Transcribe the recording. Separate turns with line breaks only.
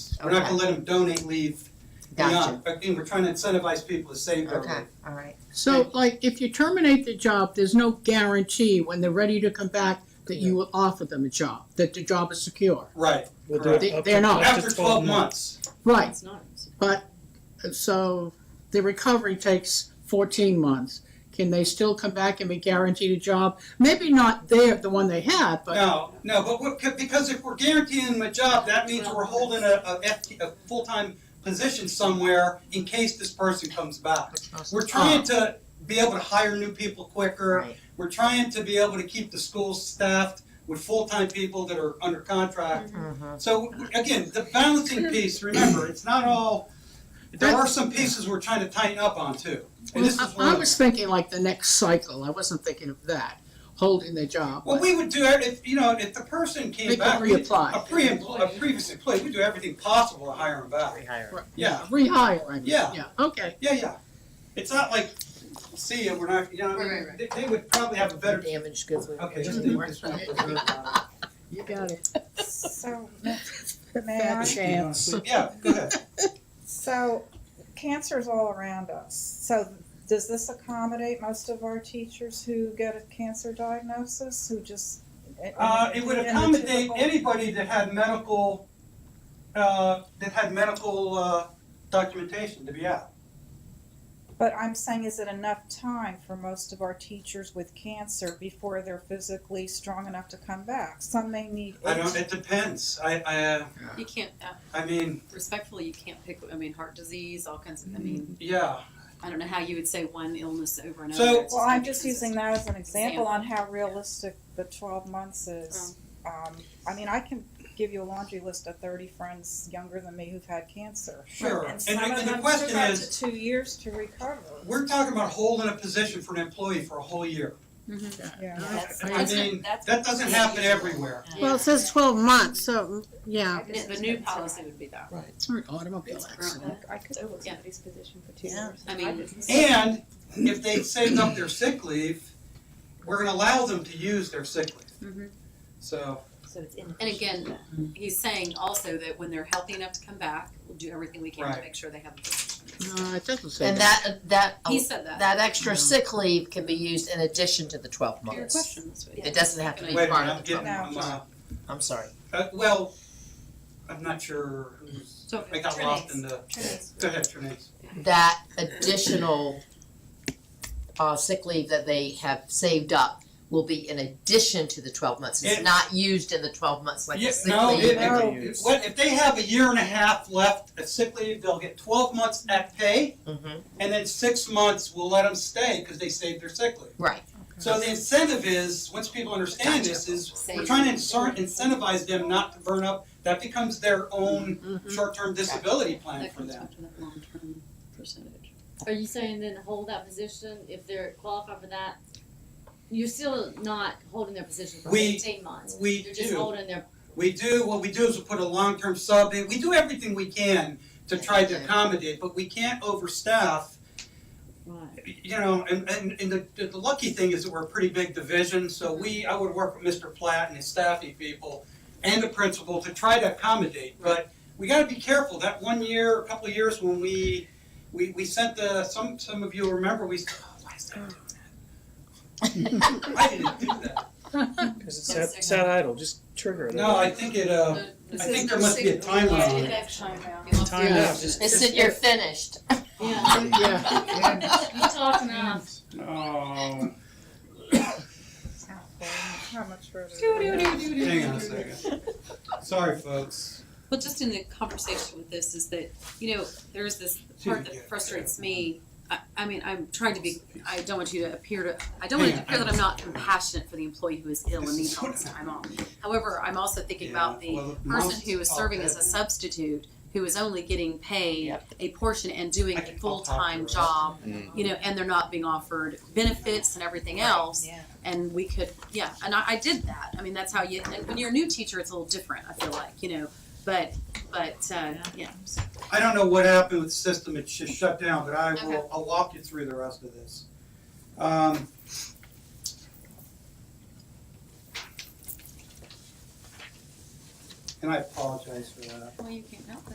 We're not
Okay.
gonna let them donate leave
Gotcha.
beyond, but again, we're trying to incentivize people to save their
Okay,
leave.
all right.
So like, if you terminate the job, there's no guarantee when they're ready to come back that you will offer them a job, that the job is secure.
Right,
We'll do
Correct.
it up
They- they're
to-
not.
up to
after twelve months,
Right,
not.
so the recovery takes fourteen months. Can they still come back and be guaranteed a job? Maybe not there, the one they had, but,
no, no, but what, c- because if we're guaranteeing them a job, that means we're holding a, a FT a full-time position somewhere in case this person comes back. We're trying to be able to hire new people quicker,
Uh-huh. Right.
we're trying to be able to keep the schools staffed with full-time people that are under contract.
Mm-hmm.
Mhm.
So again, the balancing piece, remember, it's not all, there are some pieces we're trying to tighten up on too. And this
I
is
I
one,
was thinking like the next cycle, I wasn't thinking of that, holding the job.
what we would do, if, you know, if the person
They
came
could
back. we-
reapply.
A pre, a previous employee, we do everything possible to hire them back.
Rehire.
Right,
Yeah.
Rehire, I mean,
Yeah.
yeah, okay.
Yeah, yeah. It's not like, see, we're not, you know, I
Right,
mean,
right,
they, they would probably have a better,
Damaged goods. we-
okay, just leave this one.
You got it.
So, may I?
Chance.
Yeah, go ahead.
So, cancer's all around us. So, does this accommodate most of our teachers who get a cancer diagnosis, who just? eh,
Uh, it would
in the
accommodate
typical-
anybody that had medical, uh, that had medical, uh, documentation to be out.
But I'm saying, is it enough time for most of our teachers with cancer before they're physically strong enough to come back? Some may need.
I don't, it depends, I, I, uh,
You can't, uh,
I mean,
respectfully, you can't pick, I mean, heart disease, all kinds of, I
Mm-hmm.
mean,
yeah,
I don't know how you would say one illness over and
So-
over. It's
Well, I'm
not
just
consistent.
using that as an example on how realistic the twelve months is. Um, I mean, I can give you a laundry list of thirty friends younger than me who've had cancer.
sure.
And
And,
some
and
of
the
them
question
took up
is,
to two years to recover.
we're talking about holding a position for an employee for a whole year.
Yeah.
That's-
I
I
that's-
mean,
that's-
that doesn't happen everywhere.
Yeah.
Well, it says twelve months, so, yeah.
Yeah, The new policy would be that.
It's an automobile accident.
I could over
Yeah.
somebody's position for two
Yeah.
years.
I mean,
And if they saved up their sick leave, we're gonna allow them to use their sick leave.
Mm-hmm.
Mhm.
So,
So it's in.
And again, he's saying also that when they're healthy enough to come back, we'll do everything we can to
Right.
make sure they have.
No, it doesn't say
And that, that,
He said that.
that extra sick leave can be used in addition to the twelve
Your
months.
question this week.
It doesn't have to be
wait a minute,
part
I'm
of the
getting, I'm,
twelve,
uh,
I'm sorry.
uh, well, I'm not sure who's,
So,
I got lost in the,
Trinace.
go ahead, Trinace.
That additional, uh, sick leave that they have saved up will be in addition to the twelve months. It's
It-
not used in the twelve months like
Yeah,
the sick
no,
leave.
it-
No.
it- what, if they have a year and a half left of sick leave, they'll get twelve months at pay,
Mhm.
and then six months we'll let them stay, cause they saved their sick leave.
Right.
So the incentive is, once people understand this, is we're trying to insert, incentivize them not to burn up, that becomes their own
Mhm.
short-term disability plan
That
for
comes
them.
back to that long-term percentage.
Are you saying then hold that position if they're qualified for that? You're still not holding their position for
We-
eighteen months.
We
You're just
do,
holding their,
we do, what we do is we put a long-term sub in, we do everything we can to try to accommodate, but we can't overstaff
right,
you know, and, and, and the, the lucky thing is that we're a pretty big division, so we, I would work with Mr. Platt and his staffing people and the principal to try to accommodate, but we gotta be careful, that one year, a couple of years when we, we, we sent the, some, some of you will remember, we, said, oh, why is that doing that? I didn't do that,
Cause it
One
sat,
second.
sat idle, just trigger it.
no, I think it, uh, I think there must be a timeline on it.
Time
Yeah.
out, just.
It's that you're finished.
yeah,
Yeah,
you talking now.
Oh,
How much further?
hang on a second, sorry, folks.
Well, just in the conversation with this is that, you know, there's this part that frustrates me. I, I mean, I'm trying to be, I don't want you to appear to, I don't want it to appear that I'm not compassionate for the employee who is ill and needs all this time off. However, I'm also thinking about the person who is serving as a substitute, who is only getting paid a portion and doing
I
a
can- I'll talk to her.
full-time job, you know, and they're not being offered benefits and everything else.
yeah.
And we could, yeah, and I, I did that, I mean, that's how you, and when you're a new teacher, it's a little different, I feel like, you know, but, but, uh, yeah.
I don't know what happened with the system, it just shut down, but I
Okay.
will, I'll walk you through the rest of this. Um, And I apologize for that.
Well, you can't help